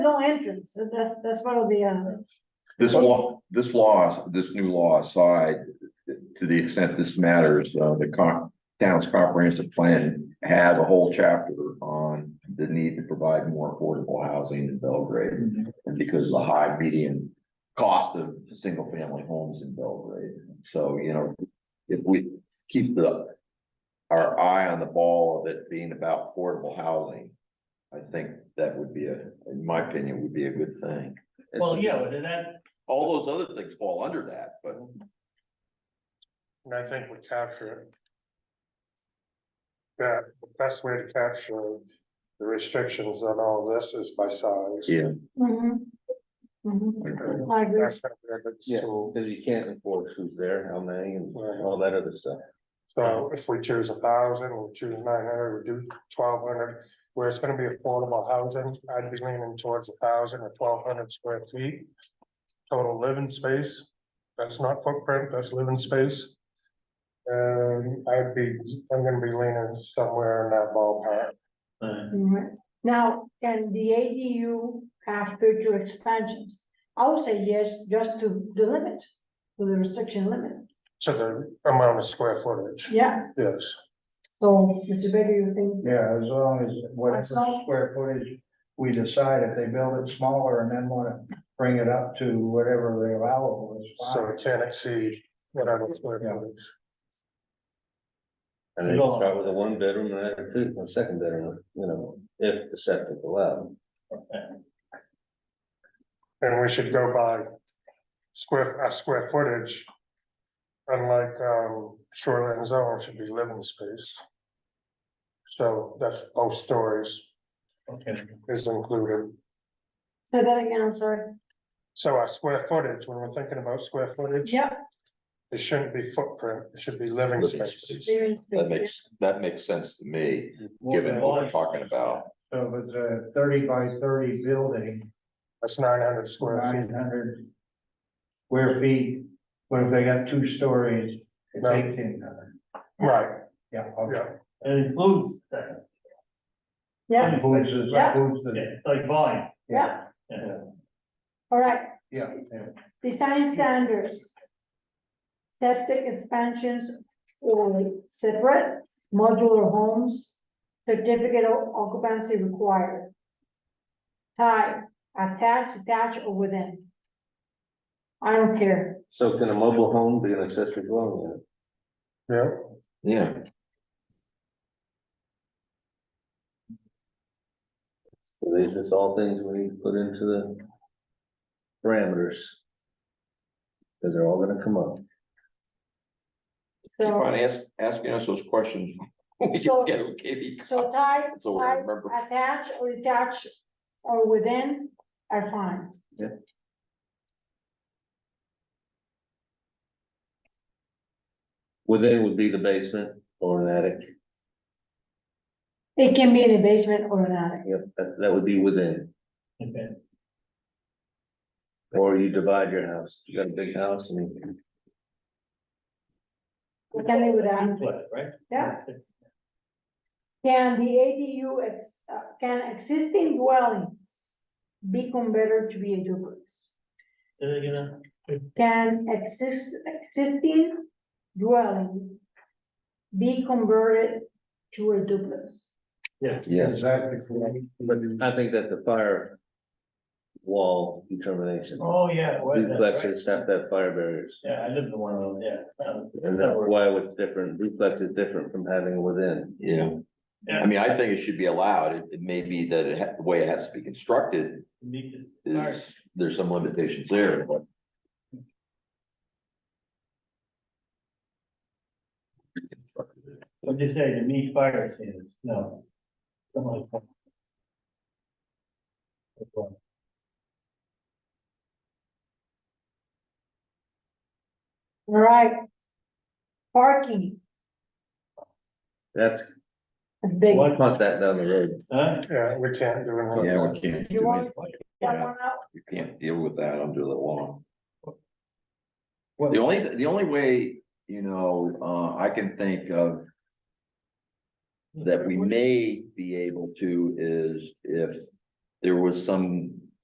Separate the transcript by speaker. Speaker 1: no entrance, and that's, that's what it'll be on.
Speaker 2: This law, this law, this new law aside, to the extent this matters, uh, the con, town's comprehensive plan had a whole chapter on the need to provide more affordable housing in Belgrade. And because of the high median cost of single family homes in Belgrade. So, you know, if we keep the, our eye on the ball of it being about affordable housing, I think that would be a, in my opinion, would be a good thing.
Speaker 3: Well, yeah, and that,
Speaker 2: All those other things fall under that, but
Speaker 4: And I think we capture it. That, the best way to capture the restrictions on all this is by size.
Speaker 2: Yeah.
Speaker 1: Mhm. Mhm. I agree.
Speaker 4: That's not there, but it's
Speaker 5: Yeah.
Speaker 4: too-
Speaker 5: Cause you can't enforce who's there, how many and
Speaker 4: Right.
Speaker 5: all that other stuff.
Speaker 4: So if we choose a thousand, we'll choose nine hundred, we do twelve hundred, where it's gonna be affordable housing, I'd be leaning towards a thousand or twelve hundred square feet. Total living space, that's not footprint, that's living space. And I'd be, I'm gonna be leaning somewhere in that ballpark.
Speaker 3: uh,
Speaker 1: Mhm. Now, can the ADU have future expansions? I would say yes, just to the limit, to the restriction limit,
Speaker 4: To the amount of square footage,
Speaker 1: yeah,
Speaker 4: yes.
Speaker 1: so, Mr. Baker, you think,
Speaker 6: Yeah, as long as whatever
Speaker 1: Myself?
Speaker 6: square footage we decide, if they build it smaller and then wanna bring it up to whatever they allow is
Speaker 4: So
Speaker 6: fine.
Speaker 4: it can't exceed whatever square
Speaker 6: Yeah.
Speaker 4: footage.
Speaker 5: And then you start with a one bedroom and then a two, a second bedroom, you know, if the septic allowed.
Speaker 4: And we should go by square, uh, square footage. Unlike, um, shoreline zone, it should be living space. So that's both stories
Speaker 3: okay,
Speaker 4: is included.
Speaker 1: say that again, I'm sorry,
Speaker 4: So our square footage, when we're thinking about square footage,
Speaker 1: yeah,
Speaker 4: it shouldn't be footprint, it should be living
Speaker 2: Living
Speaker 4: space.
Speaker 2: space.
Speaker 1: there is.
Speaker 2: that makes, that makes sense to me, given what we're talking about.
Speaker 6: So if it's a thirty by thirty building,
Speaker 4: That's nine hundred square
Speaker 6: nine
Speaker 4: feet.
Speaker 6: hundred square feet, what if they got two stories, it's
Speaker 4: No.
Speaker 6: eighteen hundred,
Speaker 4: Right,
Speaker 6: yeah, okay.
Speaker 4: yeah.
Speaker 3: it includes that,
Speaker 1: Yeah,
Speaker 6: Includes the-
Speaker 1: Yeah.
Speaker 6: includes the-
Speaker 3: yeah, like volume,
Speaker 1: yeah,
Speaker 3: yeah.
Speaker 1: all right,
Speaker 6: yeah, yeah.
Speaker 1: design standards. Septic expansions or separate modular homes, certificate of occupancy required. Type, attached, detached, or within. I don't care,
Speaker 5: So can a mobile home be an accessory dwelling unit?
Speaker 4: Yeah,
Speaker 2: Yeah.
Speaker 5: So these just all things we need to put into the parameters. Cause they're all gonna come up.
Speaker 2: Keep
Speaker 1: so,
Speaker 2: on ask, asking us those questions. We
Speaker 1: So-
Speaker 2: can get a KB
Speaker 1: so type,
Speaker 2: So we
Speaker 1: type,
Speaker 2: remember.
Speaker 1: attached or detached, or within are fine.
Speaker 5: Within would be the basement or an attic.
Speaker 1: It can be in a basement or an attic.
Speaker 5: Yep, that, that would be within,
Speaker 3: Okay.
Speaker 5: or you divide your house, you got a big house and.
Speaker 1: We can live with that.
Speaker 3: Duplex, Right?
Speaker 1: Yeah. Can the ADU, ex- uh, can existing dwellings be converted to be a duplex?
Speaker 3: Say that again,
Speaker 1: Can exist, existing dwellings be converted to a duplex?
Speaker 3: yes,
Speaker 2: Yes,
Speaker 6: Is that the correct?
Speaker 5: But I think that's a fire wall determination.
Speaker 3: oh, yeah. well, that's right.
Speaker 5: Duplexes have to have fire barriers,
Speaker 3: Yeah, I lived in one of those, yeah. Um,
Speaker 5: and that's why it's different, duplex is different from having within.
Speaker 2: yeah.
Speaker 3: Yeah.
Speaker 2: I mean, I think it should be allowed. It, it may be that it, ha- the way it has to be constructed,
Speaker 3: meet the-
Speaker 2: is, there's some limitations there, but.
Speaker 3: What'd you say, to meet fire standards, no. Something like that. That's one.
Speaker 1: All right. Parking,
Speaker 5: That's,
Speaker 1: is big.
Speaker 3: What?
Speaker 5: punt that down the road,
Speaker 3: Huh?
Speaker 4: yeah, we can't do it.
Speaker 2: Yeah, we can't
Speaker 1: You
Speaker 2: do
Speaker 1: want-
Speaker 2: it.
Speaker 1: That one out?
Speaker 2: You can't deal with that under the law.
Speaker 3: What-
Speaker 2: The only, the only way, you know, uh, I can think of that we may be able to is if there was some